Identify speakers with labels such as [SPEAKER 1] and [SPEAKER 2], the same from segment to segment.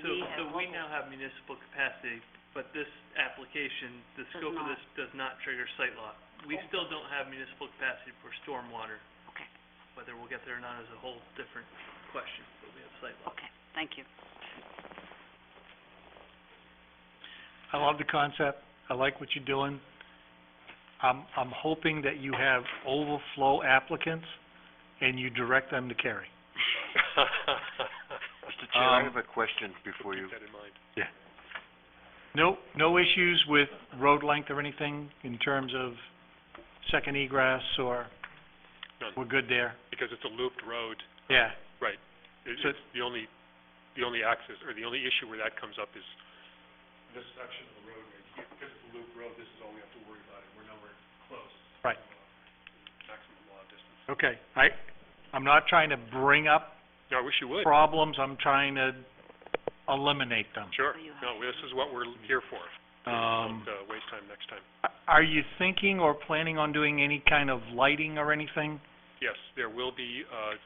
[SPEAKER 1] we now have municipal capacity, but this application, the
[SPEAKER 2] Does
[SPEAKER 1] scope of
[SPEAKER 2] not.
[SPEAKER 1] this does not trigger site law. We
[SPEAKER 2] Okay.
[SPEAKER 1] still don't have municipal capacity for stormwater.
[SPEAKER 2] Okay.
[SPEAKER 1] Whether we'll get there or not is a whole different question, but we have site law.
[SPEAKER 2] Okay, thank you.
[SPEAKER 3] I love the concept, I like what you're doing. I'm, I'm hoping that you have overflow applicants and you direct them to carry.
[SPEAKER 4] Mr. Chair, I
[SPEAKER 3] Um,
[SPEAKER 4] have a question before you.
[SPEAKER 3] No, no issues with road length or anything in terms of second egress or,
[SPEAKER 5] None.
[SPEAKER 3] we're good there?
[SPEAKER 5] because it's a looped road.
[SPEAKER 3] Yeah,
[SPEAKER 5] It-
[SPEAKER 3] So-
[SPEAKER 5] It's the only, the only access, or the only issue where that comes up is this section of the road right here, because it's a loop road, this is all we have to worry about, and we're nowhere close.
[SPEAKER 3] Right.
[SPEAKER 5] Maximum law distance.
[SPEAKER 3] okay. I, I'm not trying to bring up
[SPEAKER 5] No, I wish you would,
[SPEAKER 3] problems, I'm trying to eliminate them.
[SPEAKER 5] sure.
[SPEAKER 2] So you have-
[SPEAKER 5] No, this is what we're here for.
[SPEAKER 3] Um,
[SPEAKER 5] Don't, uh, waste time next time.
[SPEAKER 3] are you thinking or planning on doing any kind of lighting or anything?
[SPEAKER 5] Yes, there will be, uh, uh,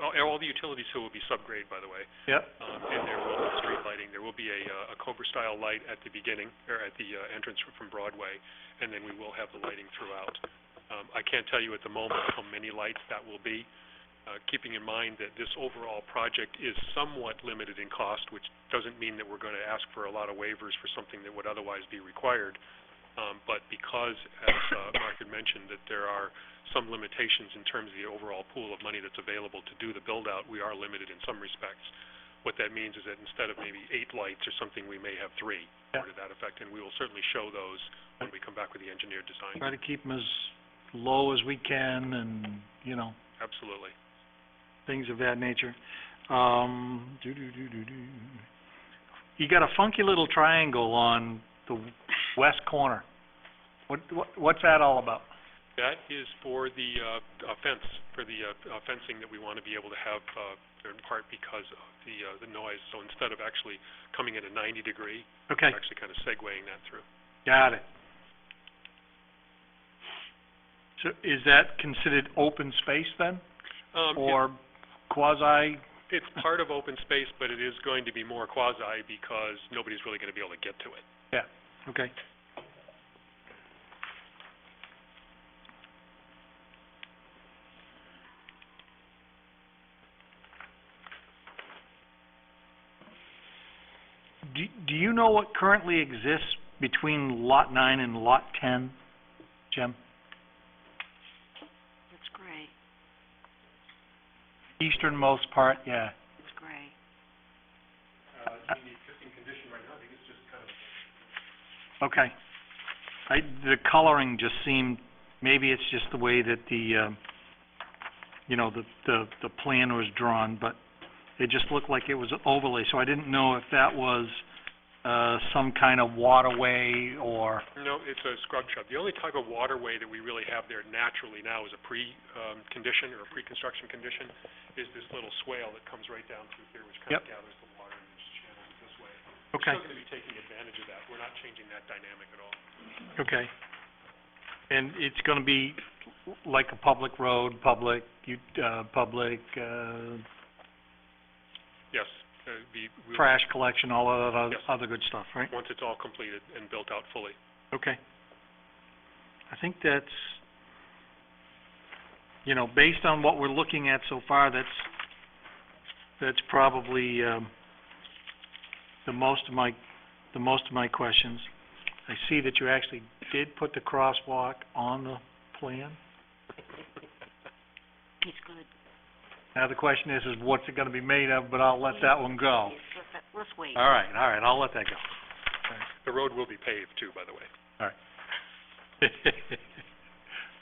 [SPEAKER 5] all- all the utilities here will be subgrade, by the way.
[SPEAKER 3] Yep.
[SPEAKER 5] Um, and there will be street lighting, there will be a, uh, a Cobra-style light at the beginning, or at the, uh, entrance from Broadway, and then we will have the lighting throughout. Um, I can't tell you at the moment how many lights that will be, uh, keeping in mind that this overall project is somewhat limited in cost, which doesn't mean that we're gonna ask for a lot of waivers for something that would otherwise be required. Um, but because, as, uh, Mark had mentioned, that there are some limitations in terms of the overall pool of money that's available to do the build-out, we are limited in some respects. What that means is that instead of maybe eight lights or something, we may have three, or to that effect, and we will certainly show those when we come back with the engineered design.
[SPEAKER 3] try to keep them as low as we can and, you know,
[SPEAKER 5] Absolutely.
[SPEAKER 3] things of that nature. Um, doo-doo-doo-doo-doo. You got a funky little triangle on the west corner. What, what, what's that all about?
[SPEAKER 5] That is for the, uh, uh, fence, for the, uh, uh, fencing that we want to be able to have, uh, in part because of the, uh, the noise. So instead of actually coming in a ninety degree,
[SPEAKER 3] Okay,
[SPEAKER 5] we're actually kind of segueing that through.
[SPEAKER 3] got it. So is that considered open space then,
[SPEAKER 5] Um, it-
[SPEAKER 3] or quasi?
[SPEAKER 5] it's part of open space, but it is going to be more quasi because nobody's really going to be able to get to it.
[SPEAKER 3] Okay. Do, do you know what currently exists between lot nine and lot ten, Jim?
[SPEAKER 2] It's gray,
[SPEAKER 3] Easternmost part, yeah.
[SPEAKER 2] it's gray.
[SPEAKER 5] Uh, I mean, the existing condition right now, I think it's just kind of
[SPEAKER 3] Okay. I, the coloring just seemed, maybe it's just the way that the, um, you know, the, the, the plan was drawn, but it just looked like it was an overlay, so I didn't know if that was, uh, some kind of waterway or,
[SPEAKER 5] No, it's a scrub shrub. The only type of waterway that we really have there naturally now is a pre, um, condition or a pre-construction condition, is this little swale that comes right down through here, which kind of gathers the water and just channels it this way.
[SPEAKER 3] okay,
[SPEAKER 5] We're still gonna be taking advantage of that. We're not changing that dynamic at all.
[SPEAKER 3] okay. And it's gonna be like a public road, public, you, uh, public, uh,
[SPEAKER 5] Yes, uh, the, we,
[SPEAKER 3] trash collection, all of that
[SPEAKER 5] Yes.
[SPEAKER 3] oth- other good stuff, right?
[SPEAKER 5] once it's all completed and built out fully.
[SPEAKER 3] Okay. I think that's, you know, based on what we're looking at so far, that's, that's probably, um, the most of my, the most of my questions. I see that you actually did put the crosswalk on the plan.
[SPEAKER 2] It's good.
[SPEAKER 3] Now the question is, is what's it gonna be made of, but I'll let that one go.
[SPEAKER 2] It's- let's- Let's wait.
[SPEAKER 3] All right, all right, I'll let that go.
[SPEAKER 5] The road will be paved too, by the way.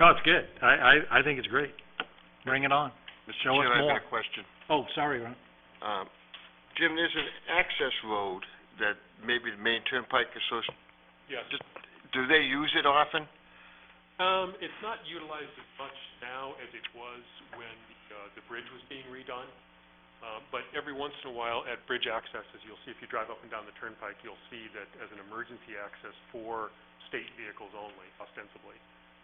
[SPEAKER 3] No, it's good. I, I, I think it's great. Bring it on.
[SPEAKER 4] Mr.
[SPEAKER 3] show us
[SPEAKER 4] Chair, I
[SPEAKER 3] more.
[SPEAKER 4] have a question.
[SPEAKER 3] Oh, sorry, Ron.
[SPEAKER 4] Um, Jim, there's an access road that maybe the Maine Turnpike Associ-
[SPEAKER 5] Yes.
[SPEAKER 4] do they use it often?
[SPEAKER 5] Um, it's not utilized as much now as it was when, uh, the bridge was being redone. Uh, but every once in a while at bridge accesses, you'll see, if you drive up and down the turnpike, you'll see that as an emergency access for state vehicles only ostensibly.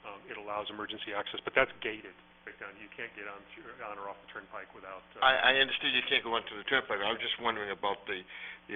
[SPEAKER 5] Um, it allows emergency access, but that's gated right down. You can't get on, through- on or off the turnpike without, uh,
[SPEAKER 4] I, I understand you can't go onto the turnpike, I was just wondering about the,